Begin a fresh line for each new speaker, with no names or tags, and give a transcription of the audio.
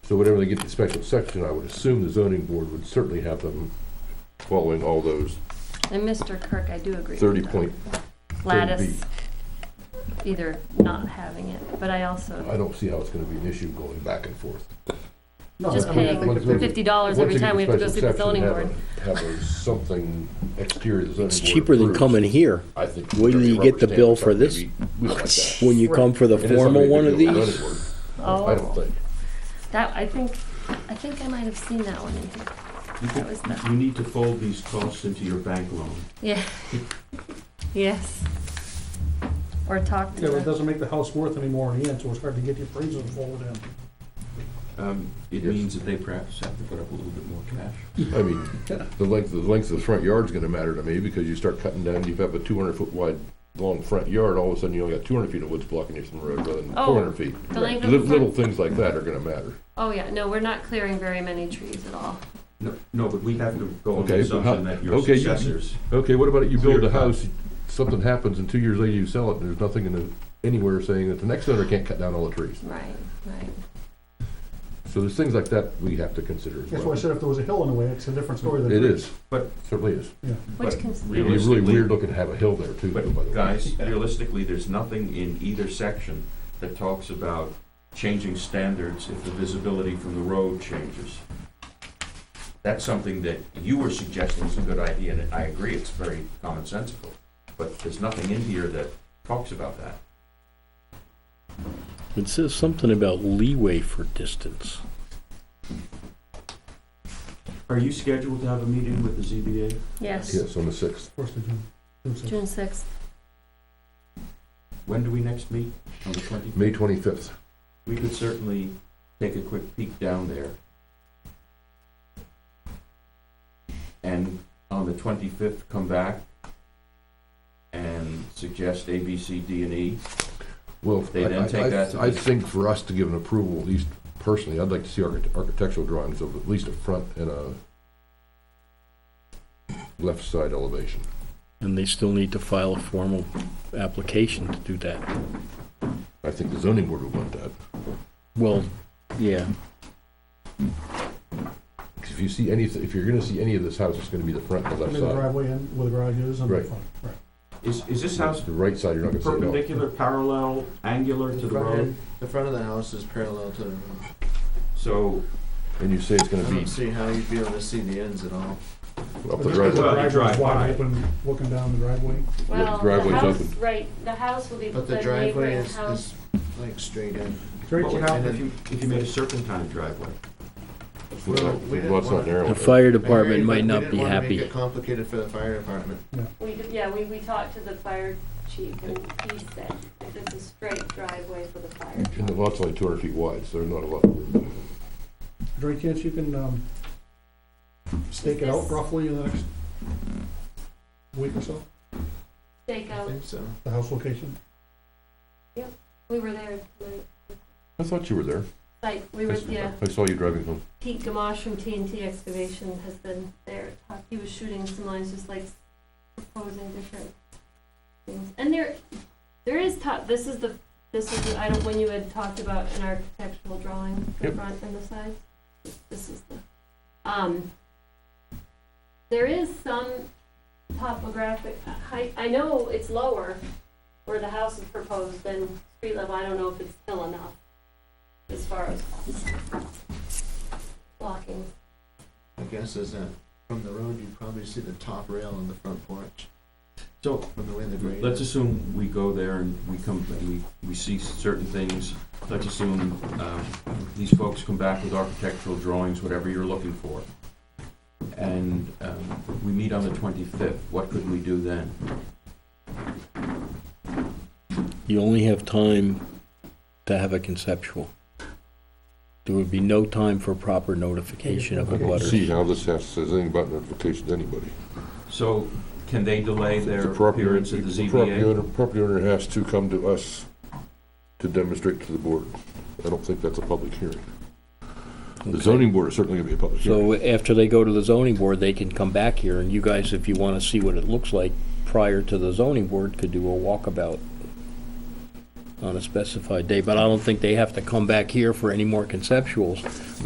So whenever they get to special section, I would assume the zoning board would certainly have them following all those
And Mr. Kirk, I do agree with
thirty
that.
point,
Gladys, either not having it, but I
I
also,
don't see how it's gonna be an issue going back and forth.
just
I mean,
paying
once they-
fifty dollars every time we have to go see the zoning board.
Have a- have a something exterior the zoning board.
It's cheaper than
approves.
coming here.
I think.
Wait till you
rubber
get the
stamp
bill
or
for this.
something, maybe we like that.
When you come for the
It is something
formal
we
one
could
of
do with
these,
zoning board. I don't
Oh,
think.
that, I think, I think I might have seen that one in here.
You
That was
could-
the-
You need to fold these costs into your bank loan.
Yeah. Yes. Or talk to
Yeah, but it
them.
doesn't make the house worth any more in the end, so it's hard to get the appraisal folded in.
Um, It
Yes.
means that they perhaps have to put up a little bit more cash.
I mean, the length, the length of the front yard's gonna matter to me, because you start cutting down, you have a two hundred foot wide long front yard, all of a sudden you only got two hundred feet of woods blocking you from the road rather than
Oh,
four hundred feet.
the length of the
Little, little
front-
things like that are gonna matter.
Oh, yeah, no, we're not clearing very many trees at all.
No, no, but we have to go on the
Okay, but how-
assumption that your
okay, you-
successors.
Okay, what about you build
Clear
a
cut.
house, something happens, and two years later you sell it, and there's nothing in the, anywhere saying that the next owner can't cut down all the trees.
Right, right.
So there's things like that we have to consider as
That's why I
well.
said if there was a hill in the way, it's a different story than.
It is,
But-
certainly is.
Which
But
cons-
It'd be really
Realistically-
weird looking to have a hill there too, though, by the
But
way.
guys, realistically, there's nothing in either section that talks about changing standards if the visibility from the road changes. That's something that you were suggesting is a good idea, and I agree, it's very commonsensical. But there's nothing in here that talks about that.
it says something about leeway for distance.
Are you scheduled to have a meeting with the ZBA?
Yes,
Yes, on the sixth.
Of course they do. Do so.
June sixth.
When do we next meet? On the twenty?
May twenty-fifth.
We could certainly take a quick peek down there. And on the twenty-fifth, come back and suggest A, B, C, D, and E.
Well,
They
I,
then take
I-
that-
I, I think for us to give an approval, at least personally, I'd like to see architect- architectural drawings of at least a front and a left side elevation.
And they still need to file a formal application to do that.
I think the zoning board would want that.
Well, yeah,
'Cause If you see any, if you're gonna see any of this house, it's gonna be the front and the
And
left
then the
side.
driveway in, where the garage is, and the
Right.
front, right.
Is, is this house
The right side, you're not gonna see at all.
perpendicular, parallel, angular to the
front
road?
end- The front of the house is parallel to the road.
So,
And you say it's
I
gonna be
don't see how you'd be able to see the ends at
up
all.
the
But
driveway.
The
driveway.
Well, you
driveway's
drive by.
wide open, looking down the driveway.
Well, the
driveway's
house,
open.
right, the house will be
But
the
the driveway
neighboring
is,
house.
is like straight in.
Straight
what would
to-
happen if you, if you made a serpentine driveway?
Well,
we
the
didn't
lot's not
wanna-
narrow
the
enough.
fire
I hear
department
you, but
might
we
not
didn't
be
wanna Make
happy.
it complicated for the fire department.
We, did- yeah, we, we talked to the fire chief and he said it's a straight driveway for the fire.
And the lot's only two hundred feet wide, so there's not a lot. of room.
Is there any chance you can, um, stake it out roughly in the next week or so,
Take
I
out,
think so.
the house location?
we were there, tonight.
I thought you were there.
like, we were, yeah,
I saw you driving home.
Pete Gamache from TNT Excavation has been there. talk- He was shooting some lines, just like proposing different things. And there, there is top, this is the, this is, the I don't, when you had talked about an architectural drawing, the
Yep.
front and the sides. This is the, um, there is some topographic, I, I know it's lower where the house is proposed than street level. I don't know if it's still enough as far as blocking.
My guess is that from the road, you'd probably see the top rail on the front porch
So,
from the way the grade
Let's
is.
assume we go there and we come, and we, we see certain things. Let's assume, um, these folks come back with architectural drawings, whatever you're looking for. And, um, we meet on the twenty-fifth. What could we do then?
You only have time to have a conceptual. There would be no time for proper notification of a
See
butter.
how this has, says anything about notifications to anybody.
So, can they delay
The
their
property owner-
appearance at the
the property
ZBA?
owner, property owner has to come to us to demonstrate to the board. I don't think that's a public hearing. The zoning board is certainly gonna be a public hearing.
So after they go to the zoning board, they can come back here, and you guys, if you want to see what it looks like prior to the zoning board, could do a walkabout on a specified day, but I don't think they have to come back here for any more conceptuals.